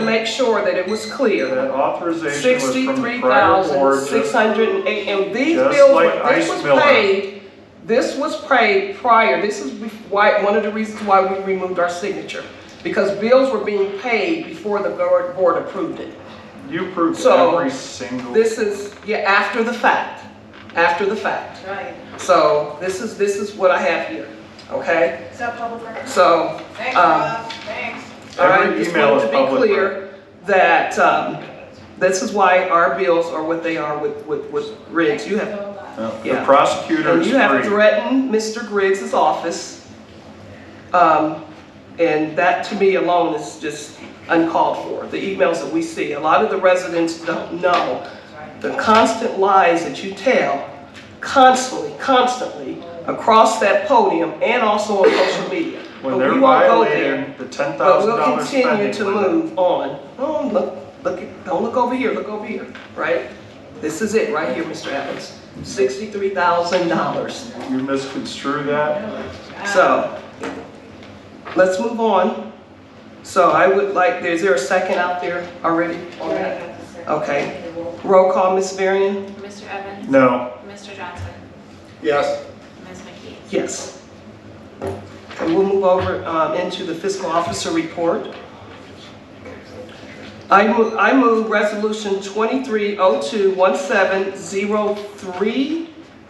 to make sure that it was clear. That authorization was from the Sixty-three prior thousand, board, six just hundred and eight, and these just bills, like were- this Ice was Miller. paid, this was paid prior, this is bef- why, one of the reasons why we removed our signature. Because bills were being paid before the board, board approved it. you approved So, every single. This is, yeah, after the fact, after the fact. Right. So this is, this is what I have here, okay? Is that public record? So, Thanks, um, Rob, thanks. All right, Every just email wanted to is be public clear that, um, this is why our bills are what they are with, with, with Riggs. You have, No, The yeah. prosecutor and is you have free. threatened Mr. Griggs' office. Um, and that to me alone is just uncalled for, the emails that we see. A lot of the residents don't know the constant lies that you tell constantly, constantly across that podium and also on social media. But When they're we won't go there. violating the ten But thousand we'll dollars continue spending to limit. move on. Don't look, look, at- don't look over here, look over here, right? This is it, right here, Mr. Evans. Sixty-three thousand dollars. You misconstrue that, So, let's move on. So I would like, is there a second out there already on that? Okay. Roll call, Ms. Varian? Mr. Evans? no, Mr. Johnson? Yes. Ms. McKee? Yes. And we'll move over um, into the fiscal officer report. I move, I move Resolution 23021703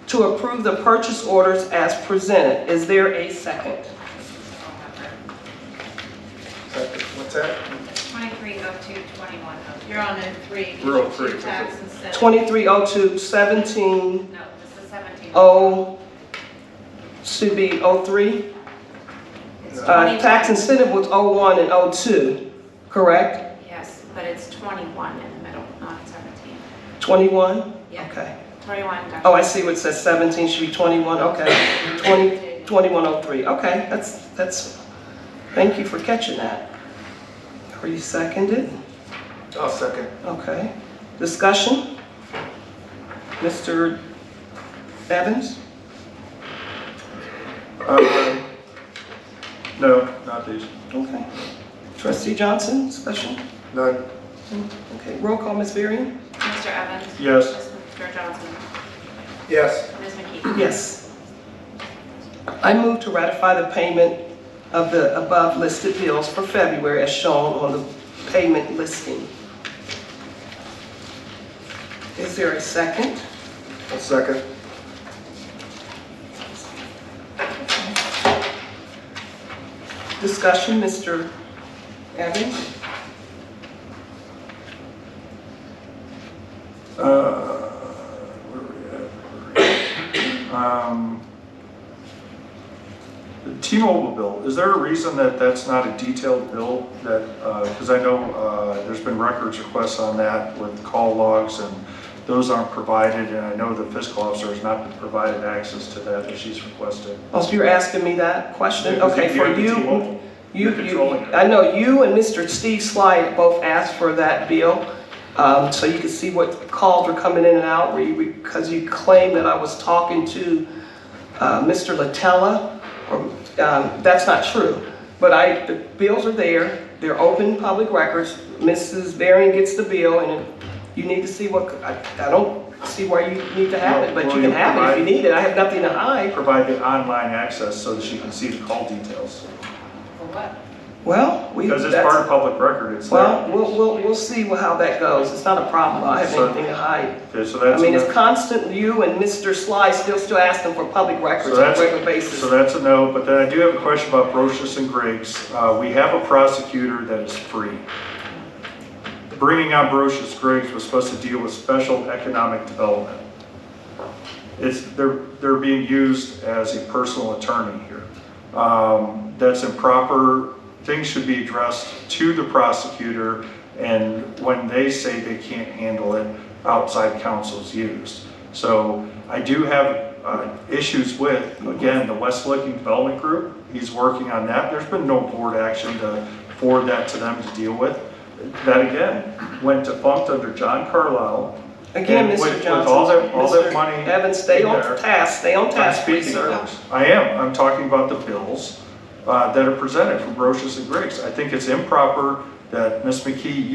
to approve the purchase orders as presented. Is there a second? What's that? Twenty-three oh two twenty-one oh two. You're on a three. We're on three. Tax incentive. 230217 No, this is seventeen. Oh, uh, should be 03? Uh, Tax incentive was 01 and 02, correct? Yes, but it's twenty-one in the middle, not seventeen. 21? Yeah. Okay. Twenty-one, got Oh, I see what it says 17, should be 21, okay. 20, 2103, okay, that's, that's, thank you for catching that. Are you seconded? I'll second. Okay. Discussion? Mr. Evans? Um, no, not these. Okay. Trustee Johnson, discussion? None. Okay, roll call, Ms. Varian? Mr. Evans? Yes. Mr. Johnson? Yes. Ms. McKee? Yes. I move to ratify the payment of the above listed bills for February as shown on the payment listing. Is there a second? I'll second. Discussion, Mr. Evans? Uh, where we at? Um, The T-Mobile bill, is there a reason that that's not a detailed bill that, because I know uh, there's been records requests on that with call logs and those aren't provided, and I know the fiscal officer has not been provided access to that that she's requested. Oh, so you're asking me that question? Because Okay, if for have the you, T-Mobile, you, You're you, controlling it. I know you and Mr. Steve Slide both asked for that bill. Um, so you can see what calls were coming in and out, where you- because you claimed that I was talking to, uh, Mr. Latella. or, Um, that's not true, but I, the bills are there, they're open public records. Mrs. Varian gets the bill and you need to see what, I, I don't see why you need to have it, but Well, you you can have it if you provide- need it. I have nothing to hide. Provide the online access so that she can see the call details. For what? Well, we, Because it's that's- part of public record, it's there. well, we'll, we'll, we'll see wha- how that goes. It's not a problem. I have So- anything to hide. Okay, so I that's. mean, a- it's constant, you and Mr. Sly still, still asking for public So records on a that's- regular So basis. that's a no, but then I do have a question about Brochus and Griggs. Uh, We have a prosecutor that is free. Bringing out Brochus Griggs was supposed to deal with special economic development. It's, they're, they're being used as a personal attorney here. Um, That's improper, things should be addressed to the prosecutor, and when they say they can't handle it, outside counsel's used. So I do have uh, issues with, again, the West Licking Development Group, he's working on that, there's been no board action to forward that to them to deal with. That again, went defunct under John Carlisle. Again, And with- Mr. with all Johnson, that- all that money Mr. Evans, stay in on there, task, stay on I'm task, please, speaking sir. of- I am, I'm talking about the bills uh, that are presented from Brochus and Griggs. I think it's improper that Ms. McKee,